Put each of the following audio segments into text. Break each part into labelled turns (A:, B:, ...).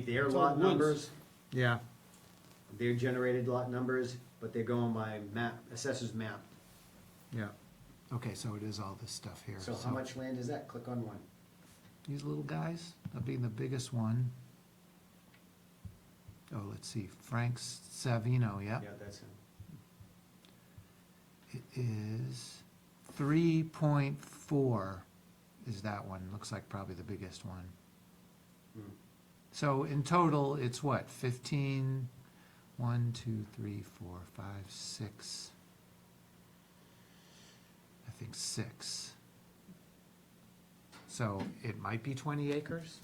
A: Their
B: It's all
A: lot
B: woods.
A: numbers,
C: Yeah,
A: their generated lot numbers, but they're going by map, assessor's map.
C: yeah. Okay, so it is all this stuff here.
A: So how much land is that? Click on one.
C: These little guys, that being the biggest one. Oh, let's see, Frank Savino,
A: Yeah,
C: yep.
A: that's him.
C: It is three point four is that one, looks like probably the biggest one.
A: Hmm.
C: So in total, it's what, fifteen, one, two, three, four, five, six. I think six. So it might be twenty acres?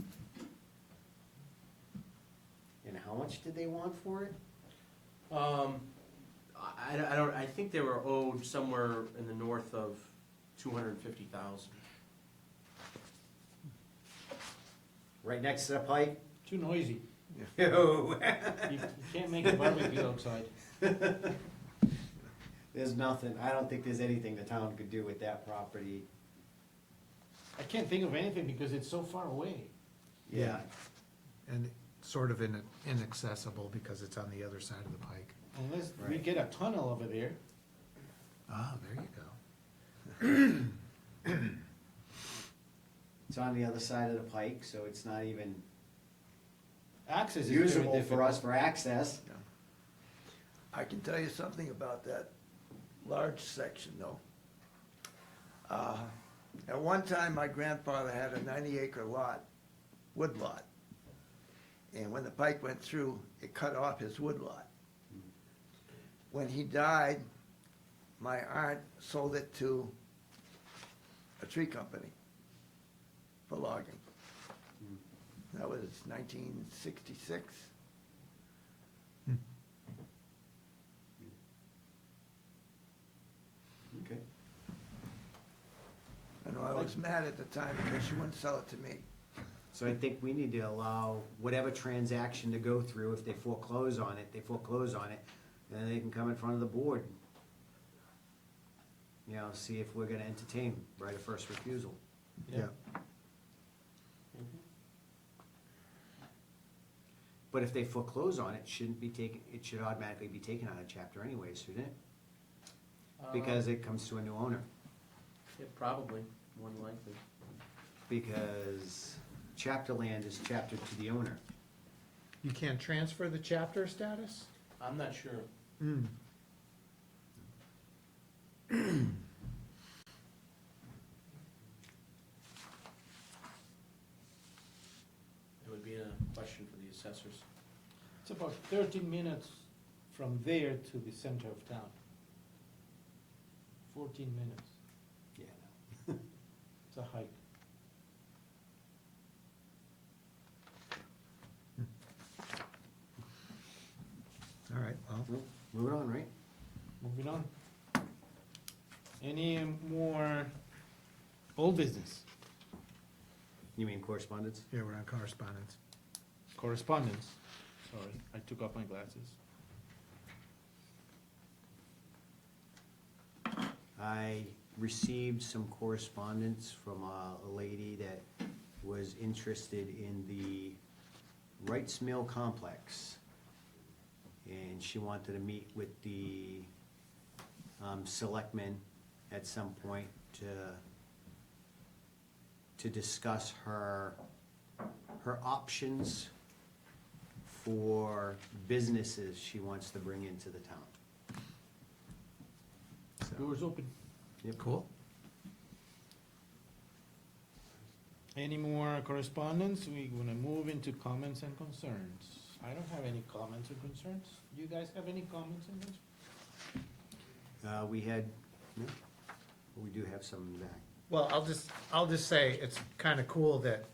A: And how much did they want for it?
D: Um, I, I- I don't, I think they were owed somewhere in the north of two hundred and fifty thousand.
A: Right next to the pipe?
B: Too noisy.
A: Yo,
B: You you can't make a barbecue outside.
A: there's nothing. I don't think there's anything the town could do with that property.
B: I can't think of anything because it's so far away.
A: Yeah,
C: And sort of in- inaccessible because it's on the other side of the pike.
B: Unless we
A: Right.
B: get a tunnel over there.
C: Ah, there you go.
A: it's on the other side of the pike, so it's not even
B: Access is very
A: usable for us
B: difficult.
A: for access.
E: I can tell you something about that large section though. Uh, At one time, my grandfather had a ninety acre lot, wood lot. And when the pike went through, it cut off his wood lot. When he died, my aunt sold it to a tree company for logging. That was nineteen sixty-six.
A: Okay.
E: And I was mad at the time because she wouldn't sell it to me.
A: So I think we need to allow whatever transaction to go through, if they foreclose on it, they foreclose on it, and then they can come in front of the board. You know, see if we're gonna entertain right of first refusal.
B: Yeah.
A: But if they foreclose on it, shouldn't be taken, it should automatically be taken out of chapter anyways, shouldn't it?
D: Uh,
A: Because it comes to a new owner,
D: Yeah, probably, more than likely.
A: because chapter land is chapter to the owner.
C: You can't transfer the chapter status?
D: I'm not sure. It would be a question for the assessors.
B: It's about thirteen minutes from there to the center of town. Fourteen minutes.
A: Yeah.
B: It's a hike.
C: All right, well,
A: Moving on, right?
B: Moving on. Any more old business
A: You mean correspondence?
C: yeah, we're on correspondence.
B: correspondence? Sorry, I took off my glasses.
A: I received some correspondence from a a lady that was interested in the Wright's Mill Complex. And she wanted to meet with the um, selectmen at some point to, to discuss her, her options for businesses she wants to bring into the town. So-
B: Doors open.
A: Yep.
C: Cool.
B: Any more correspondence? We are gonna move into comments and concerns. I don't have any comments or concerns. Do you guys have any comments and concerns?
A: Uh, we had, no, we do have some in the back.
C: Well, I'll just, I'll just say, it's kind of cool that,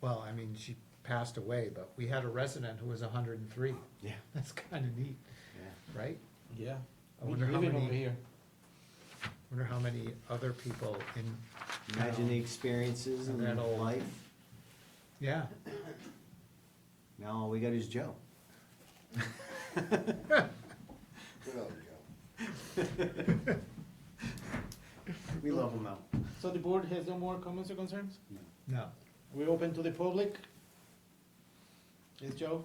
C: well, I mean, she passed away, but we had a resident who was hundred and three.
A: Yeah.
C: That's kind of neat,
A: Yeah,
C: right?
B: Yeah.
C: I wonder how
B: Living over
C: many,
B: here.
C: wonder how many other people in,
A: imagine the experiences and
C: That old.
A: life.
C: yeah,
A: Now all we got is Joe. We love him out.
B: So the board has no more comments or concerns?
C: no.
B: We're open to the public? Is Joe?